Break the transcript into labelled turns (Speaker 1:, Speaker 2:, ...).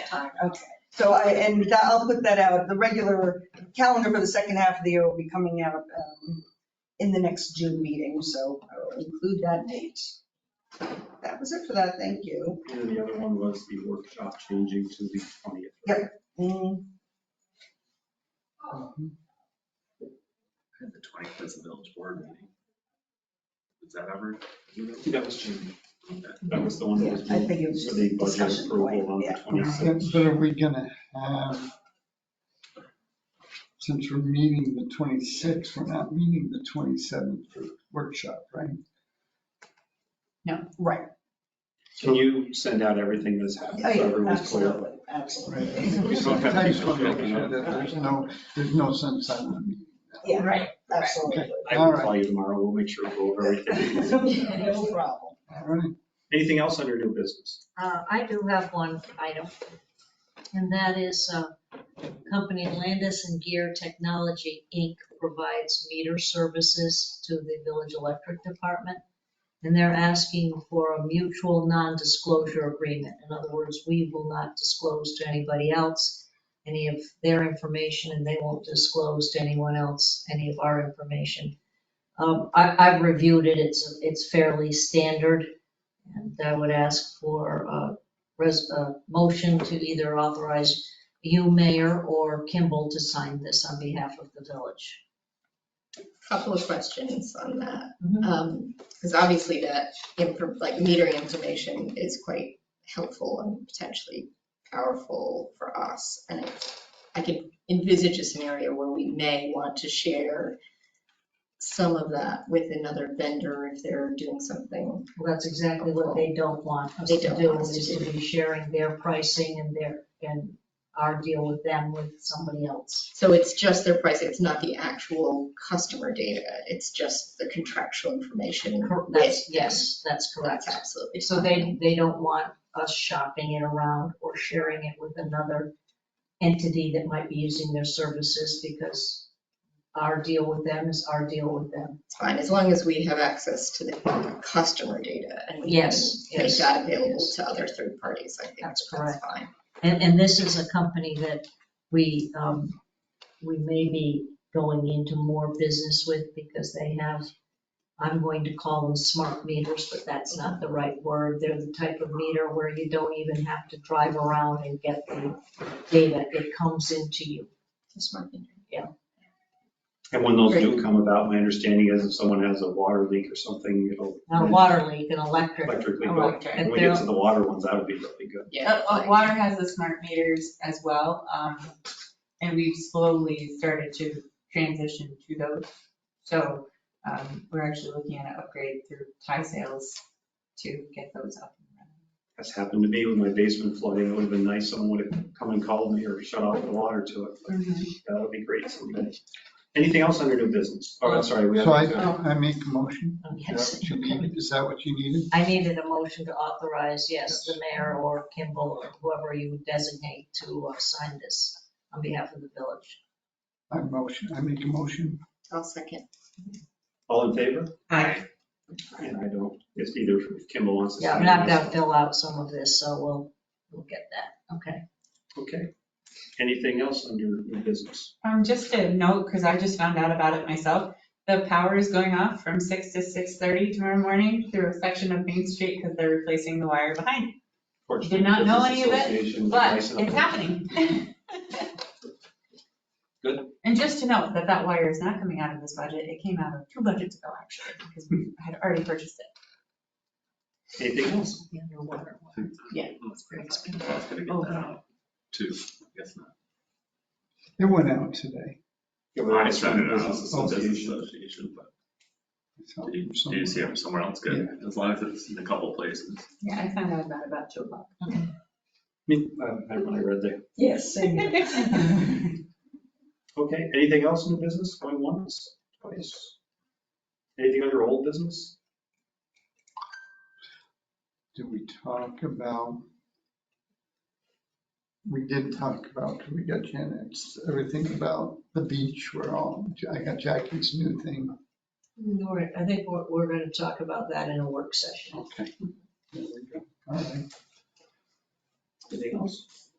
Speaker 1: time.
Speaker 2: So I, and that- I'll put that out, the regular calendar for the second half of the year will be coming out um, in the next June meeting, so I'll include that date. That was it for that, thank you.
Speaker 3: And then the other one was the workshop changing to the 20th.
Speaker 2: Yep. Mm,
Speaker 4: And the twentieth is the village board meeting. Is that ever?
Speaker 3: That was changed. That was the one that was.
Speaker 2: Yeah, I think it was
Speaker 3: For the
Speaker 2: just
Speaker 3: budget
Speaker 2: discussion point,
Speaker 3: approval on the
Speaker 2: yeah.
Speaker 3: 26th.
Speaker 5: But are we gonna have, since we're meeting the 26th, we're not meeting the 27th for workshop, right?
Speaker 2: Right,
Speaker 3: Can you send out everything that's happened
Speaker 2: Oh,
Speaker 3: so
Speaker 2: yeah,
Speaker 3: everyone's clear?
Speaker 2: absolutely, absolutely.
Speaker 3: We don't have
Speaker 5: I just
Speaker 3: to
Speaker 5: want to
Speaker 3: check
Speaker 5: make
Speaker 3: it
Speaker 5: sure
Speaker 3: out.
Speaker 5: that there's no, there's no sense having a meeting.
Speaker 2: Yeah,
Speaker 1: Right.
Speaker 2: absolutely.
Speaker 3: I
Speaker 5: All
Speaker 3: will
Speaker 5: right.
Speaker 3: call you tomorrow. We'll make sure we go over everything.
Speaker 2: No problem.
Speaker 5: All right.
Speaker 3: Anything else under new business?
Speaker 1: Uh, I do have one item, and that is, uh, company Landis and Gear Technology, Inc. provides meter services to the village electric department, and they're asking for a mutual non-disclosure agreement. In other words, we will not disclose to anybody else any of their information, and they won't disclose to anyone else any of our information. Um, I, I've reviewed it, it's, it's fairly standard. And I would ask for a res, a motion to either authorize you, mayor, or Kimball to sign this on behalf of the village.
Speaker 6: couple of questions on that.
Speaker 1: Mhm.
Speaker 6: Because obviously that, infor- like metering information is quite helpful and potentially powerful for us. And I- I can envisage a scenario where we may want to share some of that with another vendor if they're doing something.
Speaker 1: Well, that's exactly what they don't want us
Speaker 6: They
Speaker 1: to
Speaker 6: don't
Speaker 1: do,
Speaker 6: want us to
Speaker 1: is to be sharing their pricing and their, and our deal with them with somebody else.
Speaker 6: So it's just their pricing, it's not the actual customer data, it's just the contractual information.
Speaker 1: Cor-
Speaker 6: with
Speaker 1: That's,
Speaker 6: them.
Speaker 1: yes, that's correct.
Speaker 6: That's absolutely.
Speaker 1: So they, they don't want us shopping it around or sharing it with another entity that might be using their services because our deal with them is our deal with them.
Speaker 6: It's fine, as long as we have access to the customer data and we can
Speaker 1: Yes,
Speaker 6: make
Speaker 1: yes,
Speaker 6: that available
Speaker 1: yes.
Speaker 6: to other third parties, I think
Speaker 1: That's
Speaker 6: that's
Speaker 1: correct.
Speaker 6: fine.
Speaker 1: And, and this is a company that we, um, we may be going into more business with because they have, I'm going to call them smart meters, but that's not the right word. They're the type of meter where you don't even have to drive around and get the data. It comes into you.
Speaker 6: Just marking.
Speaker 3: And when those do come about, my understanding is if someone has a water leak or something, it'll
Speaker 1: Now, water leak and electric.
Speaker 3: electrically go.
Speaker 7: Electric.
Speaker 3: When we get to the water ones, that would be really good.
Speaker 6: Yeah.
Speaker 7: Uh, uh, Water has the smart meters as well, um, and we've slowly started to transition to those. So, um, we're actually looking at an upgrade through tie sales to get those up. and running.
Speaker 3: That's happened to me with my basement flooding. It would have been nice someone would have come and called me or shut off the water to it. but
Speaker 7: Mm-hmm.
Speaker 3: That would be great someday. Anything else under new business? Oh, I'm sorry. we
Speaker 5: So I,
Speaker 3: have-
Speaker 5: I make a motion. Is
Speaker 1: Yes.
Speaker 5: that what you needed? Is that what you needed?
Speaker 1: I needed a motion to authorize, yes, the mayor or Kimball or whoever you designate to uh, sign this on behalf of the village.
Speaker 5: I motion, I make a motion.
Speaker 6: I'll second.
Speaker 3: All in favor?
Speaker 7: Aye.
Speaker 3: And I don't, it's either if Kimball wants to.
Speaker 1: Yeah,
Speaker 3: sign
Speaker 1: but I've
Speaker 3: this.
Speaker 1: got to fill out some of this, so we'll, we'll get that, okay.
Speaker 3: Okay. Anything else under new business?
Speaker 7: Um, just a note, because I just found out about it myself, the power is going off from six to six thirty tomorrow morning through a section of Main Street because they're replacing the wire behind. it.
Speaker 3: Fortunately,
Speaker 7: Did not know
Speaker 3: Business
Speaker 7: any of it,
Speaker 3: Association,
Speaker 7: But
Speaker 3: nice
Speaker 7: it's
Speaker 3: enough.
Speaker 7: happening.
Speaker 3: Good.
Speaker 7: And just to note that that wire is not coming out of this budget, it came out of two budgets ago, actually, because we had already purchased it.
Speaker 3: Anything else?
Speaker 1: The underwater one.
Speaker 4: That's pretty expensive. I was gonna get that out, too. I Guess not.
Speaker 5: It went out today.
Speaker 3: Yeah, but
Speaker 4: I
Speaker 3: it's
Speaker 4: sent it
Speaker 3: not
Speaker 4: out. Oh,
Speaker 3: business
Speaker 4: It's a business
Speaker 3: association.
Speaker 4: association, but
Speaker 5: So-
Speaker 4: did you- did you see it somewhere else? Good. As long as it's in a couple places.
Speaker 7: Yeah, I found out about about two o'clock.
Speaker 3: Me- uh, Never mind, I read there.
Speaker 2: Yes, same here.
Speaker 3: Okay, anything else in the business going once, twice? Anything under old business?
Speaker 5: Did we talk about? We did talk about, we got Janet's, everything about the beach, we're all, I got Jackie's new thing.
Speaker 1: We're- I think we're, we're gonna talk about that in a work session.
Speaker 5: Okay. There we go. All right.
Speaker 3: Anything else?